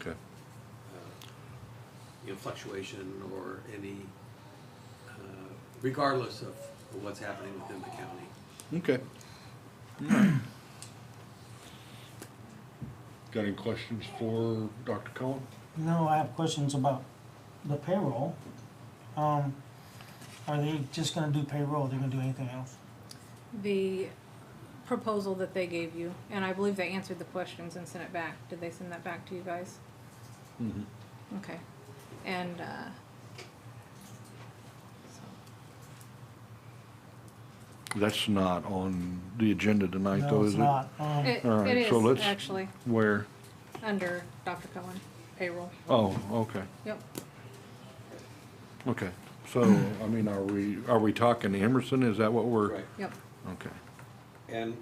Okay. um, you know, fluctuation or any, uh, regardless of what's happening within the county. Okay. Got any questions for Dr. Cullen? No, I have questions about the payroll. Um, are they just gonna do payroll, they're gonna do anything else? the proposal that they gave you, and I believe they answered the questions and sent it back. Did they send that back to you guys? Mhm. Okay, and, uh, so, That's not on the agenda tonight, though, No, is it's it? not, um, it, All right, it so is let's- actually Where? under Dr. Cohen payroll. Oh, okay, Yep, okay. So, I mean, are we, are we talking Emerson? Is that what we're? Right. yep, Okay. And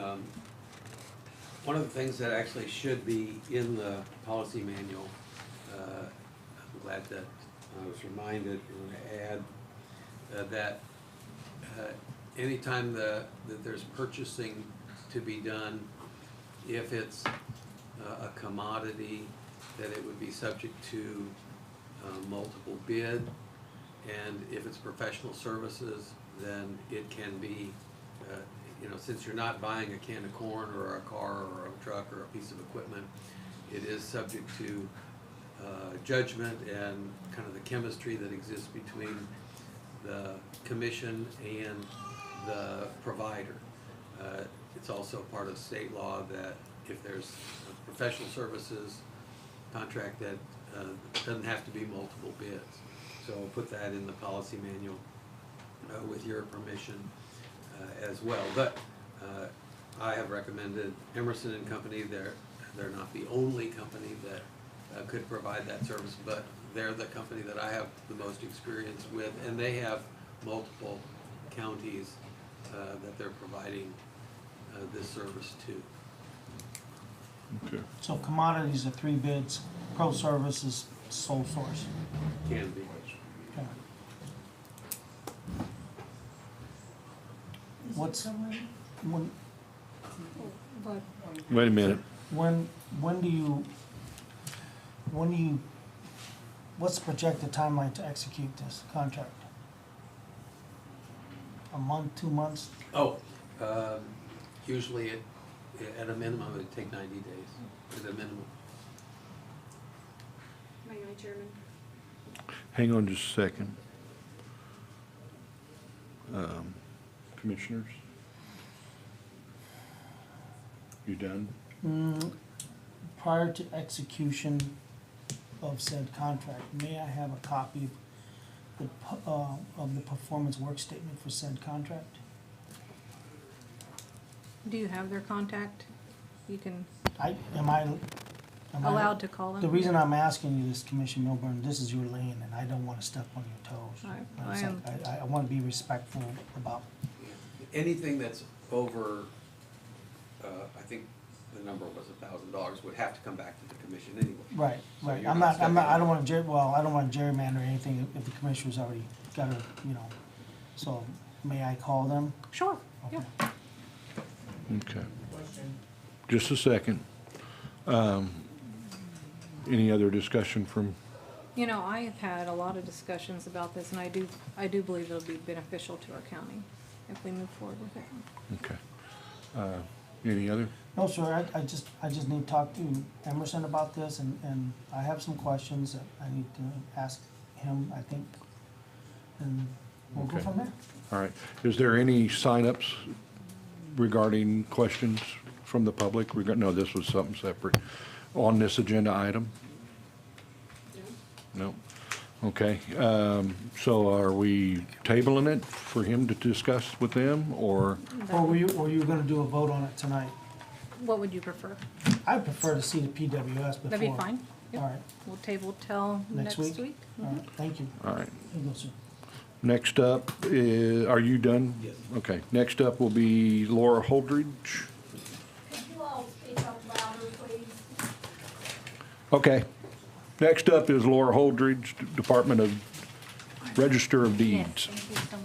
um, one of the things that actually should be in the policy manual, uh, I'm glad that I was reminded, I'm gonna add uh, that uh, anytime the, that there's purchasing to be done, if it's uh, a commodity, that it would be subject to uh, multiple bid. And if it's professional services, then it can be, uh, you know, since you're not buying a can of corn or a car or a truck or a piece of equipment, it is subject to uh, judgment and kind of the chemistry that exists between the commission and the provider. Uh, It's also part of state law that if there's professional services contract that uh, doesn't have to be multiple bids. So I'll put that in the policy manual uh, with your permission uh, as well. But uh, I have recommended Emerson and Company, they're, they're not the only company that uh, could provide that service, but they're the company that I have the most experience with, and they have multiple counties uh, that they're providing uh, this service to. Okay. so commodities are three bids, pro service is sole source. Can be. Okay. What's, when, but Wait a minute. when, when do you, when do you, what's the projected timeline to execute this contract? A month, two months? Oh, um, usually it, at a minimum, it'd take ninety days, at a minimum. My only German. Hang on just a second. Um, Commissioners? You done? Mm, Prior to execution of said contract, may I have a copy of the, p- uh, of the performance work statement for said contract? do you have their contact? You can, I, am I, am I? allowed to call them? The reason I'm asking you this, Commissioner Milburn, this is your lane, and I don't wanna step on your toes. I- I It's am- like, I, I wanna be respectful about, Anything that's over, uh, I think the number was a thousand dollars, would have to come back to the commission anyway. right, So right, you're I'm not not, I'm not, I stepping don't in. wanna ger, well, I don't wanna gerrymander anything if the commissioner's already got a, you know, so, may I call them? Sure, yeah, Okay. Just a second. Um, Any other discussion from, you know, I have had a lot of discussions about this, and I do, I do believe it'll be beneficial to our county if we move forward with it. okay. Uh, Any other? No, sir, I, I just, I just need to talk to Emerson about this, and, and I have some questions that I need to ask him, I think, and we'll go Okay. from there. All right. Is there any signups regarding questions from the public? We got, no, this was something separate. On this agenda item? No? Okay. Um, So are we tabling it for him to discuss with them, or? Or were you, or you were gonna do a vote on it tonight? What would you prefer? I prefer to see the PWS before. That'd be fine. Yep. All right, We'll table till Next next week? week. Mm-hmm. all right, thank you. All right. Here you go, sir. Next up, i- are you done? Yes. Okay, next up will be Laura Holdridge. Could you all speak up louder, please? Okay. Next up is Laura Holdridge, Department of Register of Yes, Deeds. thank you so much.